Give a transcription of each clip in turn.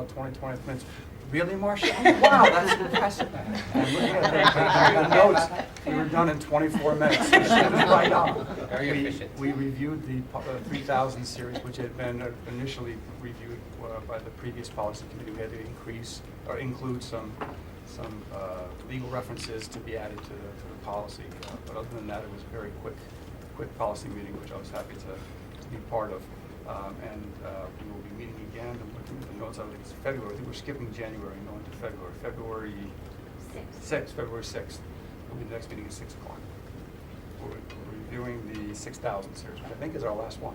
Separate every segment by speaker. Speaker 1: in 20, 20 minutes. Really, Marcia? Wow, that's impressive. And looking at the- the notes, we were done in 24 minutes. She was right on.
Speaker 2: Very
Speaker 1: We-
Speaker 2: efficient.
Speaker 1: We reviewed the po- uh, 3,000 series, which had been uh, initially reviewed uh, by the previous policy committee. We had to increase, or include some, some uh, legal references to be added to the, to the policy. Uh, But other than that, it was a very quick, quick policy meeting, which I was happy to be part of. Um, And uh, we will be meeting again, I'm looking at the notes, I think it's February, I think we're skipping January, and going to February. February sixth, February sixth, will be the next meeting at six o'clock. We're we're reviewing the six thousand series, which I think is our last one.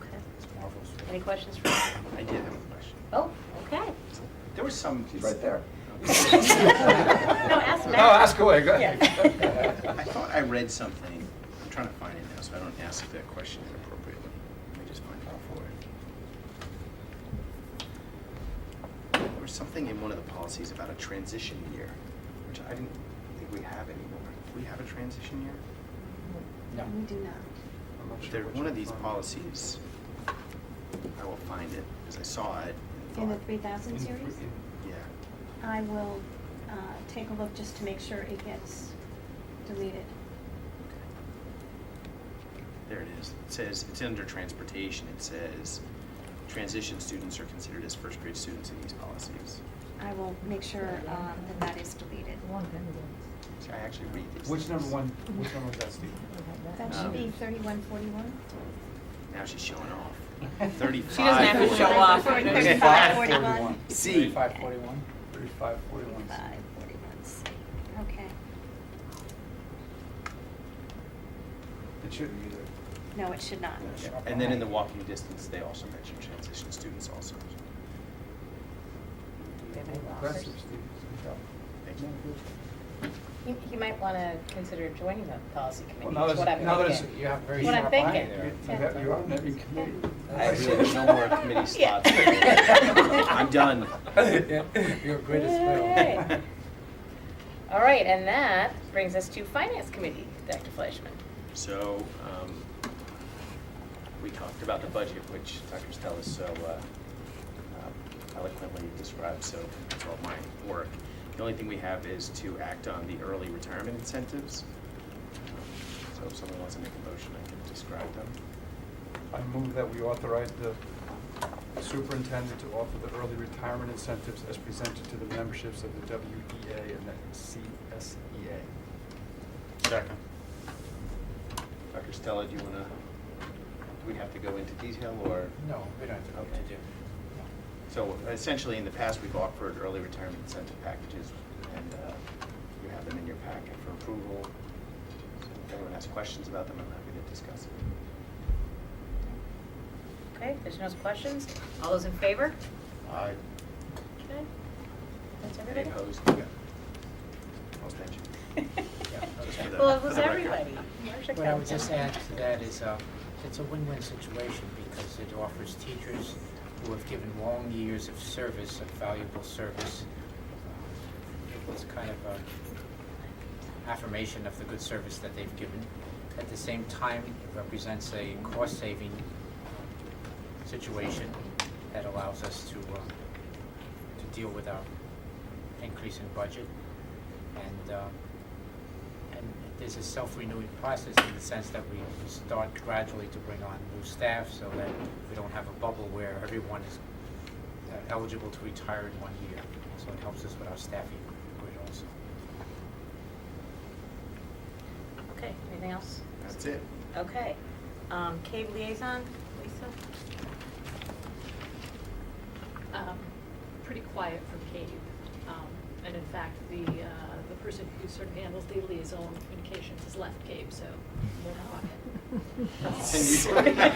Speaker 3: Okay.
Speaker 1: It's marvelous.
Speaker 3: Any questions for us?
Speaker 4: I did have a question.
Speaker 3: Oh, okay.
Speaker 4: There was some.
Speaker 1: She's right there.
Speaker 3: No, ask
Speaker 1: No,
Speaker 3: Matt.
Speaker 1: ask away, go
Speaker 3: Yeah.
Speaker 1: ahead.
Speaker 4: I thought I read something, I'm trying to find it now, so I don't ask that question inappropriately. Let me just find out for it. There was something in one of the policies about a transition year, which I didn't think we have anymore. Do we have a transition year?
Speaker 1: No.
Speaker 5: We do not.
Speaker 1: I'm not sure
Speaker 4: There,
Speaker 1: which
Speaker 4: one of these
Speaker 1: one.
Speaker 4: policies, I will find it, because I saw it and
Speaker 5: In the
Speaker 4: thought-
Speaker 5: three thousand
Speaker 1: In-
Speaker 5: series?
Speaker 1: in-
Speaker 4: Yeah.
Speaker 5: I will, uh, take a look just to make sure it gets deleted.
Speaker 4: There it is. It says, it's under transportation. It says, transition students are considered as first grade students in these policies.
Speaker 5: I will make sure, um, that that is deleted.
Speaker 4: See, I actually read these.
Speaker 1: Which number
Speaker 4: things.
Speaker 1: one, which number was that, Steve?
Speaker 5: That
Speaker 4: Um,
Speaker 5: should be thirty-one forty-one?
Speaker 4: Now she's showing off.
Speaker 3: She doesn't have to show off.
Speaker 5: Thirty-five forty-one?
Speaker 4: C.
Speaker 2: Thirty-five forty-one.
Speaker 1: Thirty-five, forty-one.
Speaker 5: Thirty-five forty-one, C, okay.
Speaker 1: It shouldn't be there.
Speaker 5: No, it should not.
Speaker 4: Yeah. And then in the walking distance, they also mention transition students also.
Speaker 1: Aggressive, Steve. Good job.
Speaker 4: Thank you.
Speaker 6: You, you might want to consider joining the policy
Speaker 1: Well,
Speaker 6: committee,
Speaker 1: now
Speaker 6: is what I'm
Speaker 1: there's,
Speaker 6: thinking.
Speaker 1: now there's, you have very
Speaker 6: What I'm
Speaker 1: sharp eye
Speaker 6: thinking.
Speaker 1: there. You
Speaker 6: Yeah.
Speaker 1: have- You are, maybe committee.
Speaker 4: Actually, there's no more committee
Speaker 6: Yeah.
Speaker 4: slots. I'm done.
Speaker 2: You're great as well.
Speaker 6: Yay. All right, and that brings us to finance committee, Dr. Fleischman.
Speaker 4: So, um, we talked about the budget, which Dr. Stella so uh, uh, eloquently described, so it's all my work. The only thing we have is to act on the early retirement incentives. So if someone wants to make a motion, I can describe them.
Speaker 1: I move that we authorize the superintendent to offer the early retirement incentives as presented to the memberships of the WEA and the E CSEA.
Speaker 4: Second. Dr. Stella, do you want to, do we have to go into detail, or?
Speaker 2: No, we don't have to do.
Speaker 4: So essentially, in the past, we've offered early retirement incentive packages, and uh, you have them in your packet for approval. So If anyone has questions about them, I'm happy to discuss it.
Speaker 6: Okay, if there's no questions, all those in favor?
Speaker 4: Aye.
Speaker 6: Okay. That's
Speaker 4: Any
Speaker 6: everybody?
Speaker 4: opposed? Yeah. Most mentioned. just for the-
Speaker 6: Well, it
Speaker 4: for
Speaker 6: was
Speaker 4: the record.
Speaker 6: everybody. Marcia
Speaker 2: What I would
Speaker 6: counts
Speaker 2: just
Speaker 6: it.
Speaker 2: add to that is, uh, it's a win-win situation because it offers teachers who have given long years of service, of valuable service. um, It was kind of a affirmation of the good service that they've given. At the same time, it represents a cost-saving situation that allows us to, uh, to deal with our increase in budget. And, uh, and there's a self-renewing process in the sense that we start gradually to bring on new staff so that we don't have a bubble where everyone is uh, eligible to retire in one year. So it helps us with our staffing grid also.
Speaker 6: Okay, anything else?
Speaker 4: That's it.
Speaker 6: Okay. Um, cave liaison, Lisa?
Speaker 7: um, pretty quiet from Cave. Um, And in fact, the, uh, the person who sort of handles the liaison communications has left Cave, so we're not on
Speaker 4: It's unusual.
Speaker 7: it.
Speaker 1: Oh,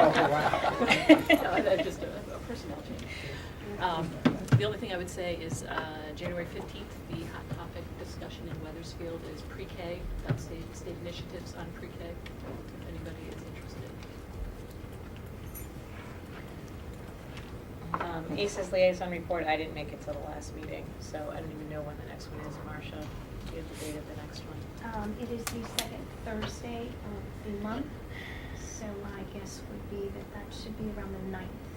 Speaker 5: Oh,
Speaker 7: No, I- I just a a personnel change. Um, The only thing I would say is uh, January 15th, the hot topic discussion in Weathersfield is pre-K. That's state, state initiatives on pre-K, if anybody is interested.
Speaker 6: Um, ACES liaison report, I didn't make it till the last meeting, so I don't even know when the next one is, Marcia. Do you have the date of the next one?
Speaker 5: Um, it is the second Thursday of the month, so my guess would be that that should be around the ninth.